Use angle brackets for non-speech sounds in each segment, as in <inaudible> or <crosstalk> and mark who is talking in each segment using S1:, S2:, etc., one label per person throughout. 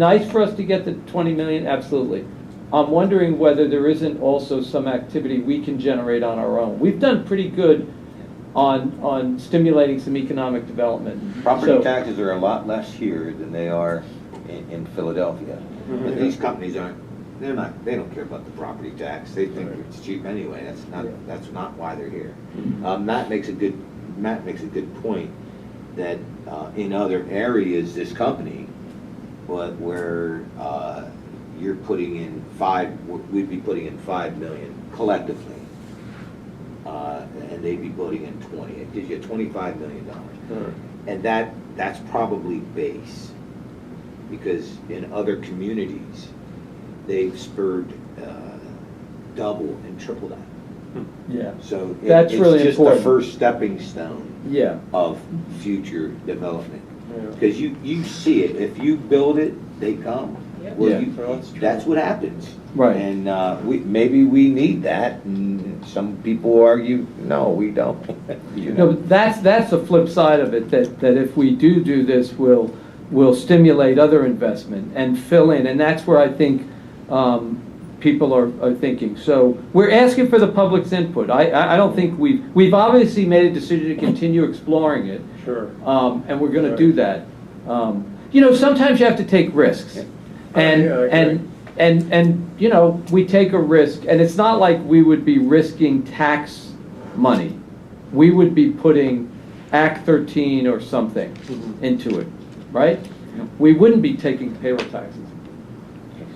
S1: nice for us to get the 20 million, absolutely. I'm wondering whether there isn't also some activity we can generate on our own. We've done pretty good on, on stimulating some economic development.
S2: Property
S1: So-
S2: taxes are a lot less here than they are in, in Philadelphia. But these companies aren't, they're not, they don't care about the property tax, they think it's cheap anyway, that's not, that's not why they're here. Um, Matt makes a good, Matt makes a good point, that, uh, in other areas, this company, but where, uh, you're putting in five, we'd be putting in five million collectively, uh, and they'd be putting in twenty, it gives you twenty-five million dollars. And that, that's probably base, because in other communities, they've spurred uh, double and triple that.
S1: Yeah,
S2: So it-
S1: That's really
S2: It's just
S1: important.
S2: the first stepping stone
S1: yeah.
S2: of future development. Because you, you see it, if you build it, they come.
S3: Yep.
S2: Well,
S1: Yeah.
S2: you- That's what happens.
S1: Right.
S2: And uh, we, maybe we need that, and some people argue, no, we don't. <laughs> You
S1: No,
S2: know.
S1: but that's, that's the flip side of it, that, that if we do do this, we'll, we'll stimulate other investment and fill in, and that's where I think, um, people are, are thinking. So, we're asking for the public's input, I, I, I don't think we've, we've obviously made a decision to continue exploring it,
S4: Sure.
S1: um, and we're gonna
S4: Right.
S1: do that. Um, You know, sometimes you have to take risks, and,
S4: Yeah, I agree.
S1: and, and, and, you know, we take a risk, and it's not like we would be risking tax money. We would be putting Act thirteen or something
S4: Mhm.
S1: into it, right? We wouldn't be taking payroll taxes.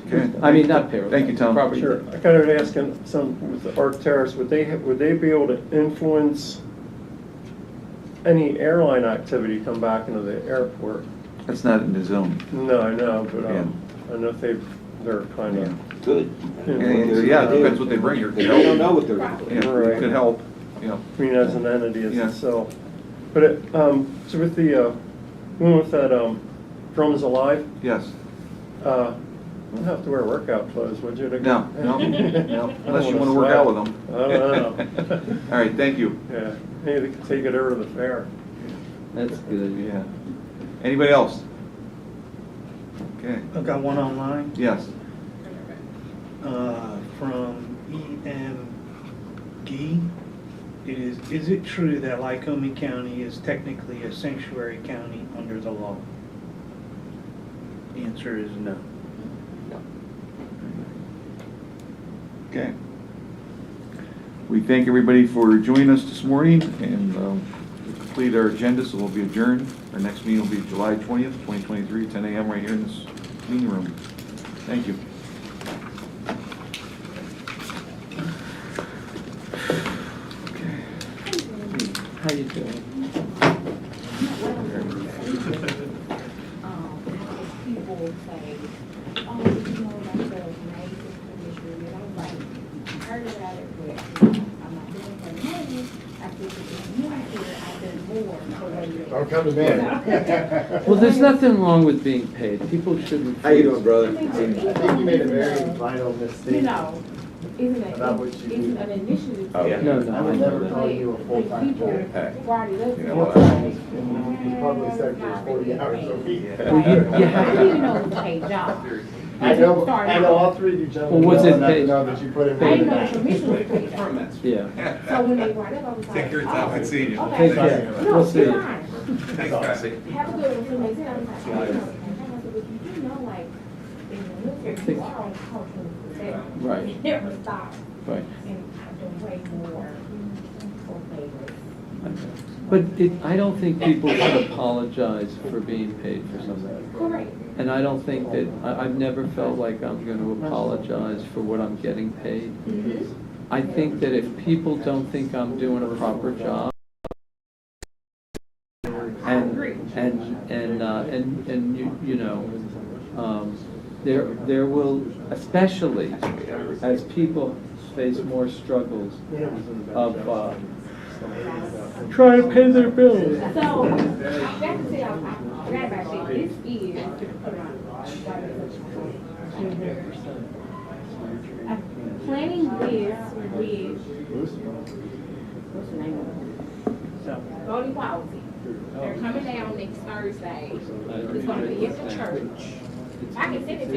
S5: Okay.
S1: I mean, not payroll.
S5: Thank you,
S1: taxes,
S5: Tom.
S1: property
S4: Um, Sure.
S1: tax.
S4: I kind of asking some with the Arc Terrace, would they, ha- would they be able to influence any airline activity come back into the airport?
S5: That's not in the zone.
S4: No, I know, but um, I know if they, they're kind of.
S2: Good.
S4: Yeah.
S5: Yeah, it depends what they bring, or
S2: They
S5: could
S2: don't know
S5: help.
S2: what they're gonna do.
S5: Yeah, it could help, yeah.
S4: I mean, as an entity as
S5: Yeah.
S4: itself. But it, um, so with the, uh, one with that, um, Drums Alive,
S5: Yes.
S4: uh, you don't have to wear workout clothes, would you?
S5: No,
S4: <laughs>
S5: no, no, unless you want to work out with them.
S4: I don't know.
S5: <laughs> All right, thank you.
S4: Yeah, maybe they could take it over to the fair.
S1: That's good,
S5: Yeah. Anybody else? Okay,
S6: I've got one online
S5: yes.
S6: uh, from EMD. It is, is it true that Lycoming County is technically a sanctuary county under the law? The answer is no.
S5: Okay. We thank everybody for joining us this morning and um, we complete our agenda, so we'll be adjourned. Our next meeting will be July 20th, 2023, 10 a.m. right here in this meeting room. Thank you.
S1: How you doing?
S7: um, people will say, oh, you know, like the Magus commission, and I'm like, I heard about it, but I'm not doing it for Magus. I think it's a new here, I've done more for what
S8: Don't come to <laughs> me.
S1: Well, there's nothing wrong with being paid, people shouldn't.
S2: How you doing, brother?
S8: I think you made a very vital mistake.
S7: You know, isn't it,
S8: About what you
S7: it's
S8: do.
S7: an initiative.
S2: Oh, yeah.
S1: No,
S8: I
S1: no, I
S8: would
S1: know
S8: never
S1: that.
S8: call you a full-time
S7: People
S8: candidate.
S7: brought it
S2: You
S7: up.
S8: You
S2: know
S8: know,
S2: what?
S8: in the public sector is forty hours a week.
S1: Well, you- you have
S7: I
S1: to-
S7: didn't know it was paid job.
S8: I know, I know all three of you
S1: Well,
S8: gentlemen
S1: what's
S8: well
S1: it
S8: enough
S1: pay?
S8: to know that you put in.
S7: I didn't
S8: work.
S7: know the commission was paid job.
S1: Yeah.
S7: So when they brought it up, I was like.
S9: Take your time,
S7: oh,
S9: I've seen you.
S7: okay.
S1: Take care.
S7: No,
S1: We'll see
S7: it's
S1: you.
S7: fine.
S9: Thanks, Cassie.
S7: Have a good one, and I was like, I don't know, and I was like, you do know, like, in the military, you are on cultural protection.
S1: Right.
S7: You Never stop,
S1: Right.
S7: and I've done way more for favors.
S1: But it, I don't think people should apologize for being paid for something.
S7: Correct.
S1: And I don't think that, I, I've never felt like I'm gonna apologize for what I'm getting paid. I think that if people don't think I'm doing a proper job, and, and, and, uh, and, and you, you know, um, there, there will, especially as people face more struggles of, uh,
S4: Trying to pay their bills.
S7: So, I got to tell, I forgot about that, this is. I'm planning this with, what's the name of it? Voting policy. They're coming down next Thursday. It's gonna be at the church.
S1: it's-
S7: I can send it to